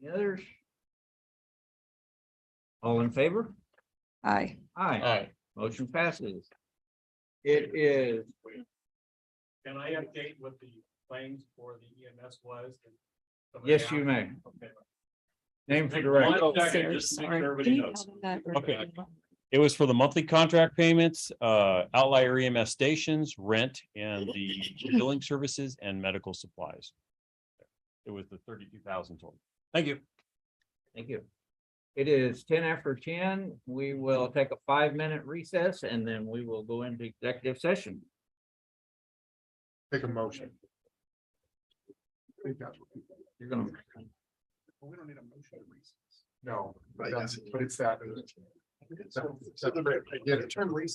others? All in favor? Aye. Aye, Aye. motion passes. It is, Can I update what the claims for the EMS was? yes, you may. Okay. Name for the Right. record. Oh, Okay, Sarah, just to make sorry. sure everybody Can you knows. tell them that we're Okay. doing one? It was for the monthly contract payments, uh, outlier EMS stations, rent, and the billing services and medical supplies. It was the thirty-two thousand total. Thank you. Thank you. It is ten after ten. We will take a five-minute recess and then we will go into executive session. Take a motion. I think that's what- You're gonna, Well, we don't need a motion to recess. No, but that's- but it's that. So- so the- yeah, the term lease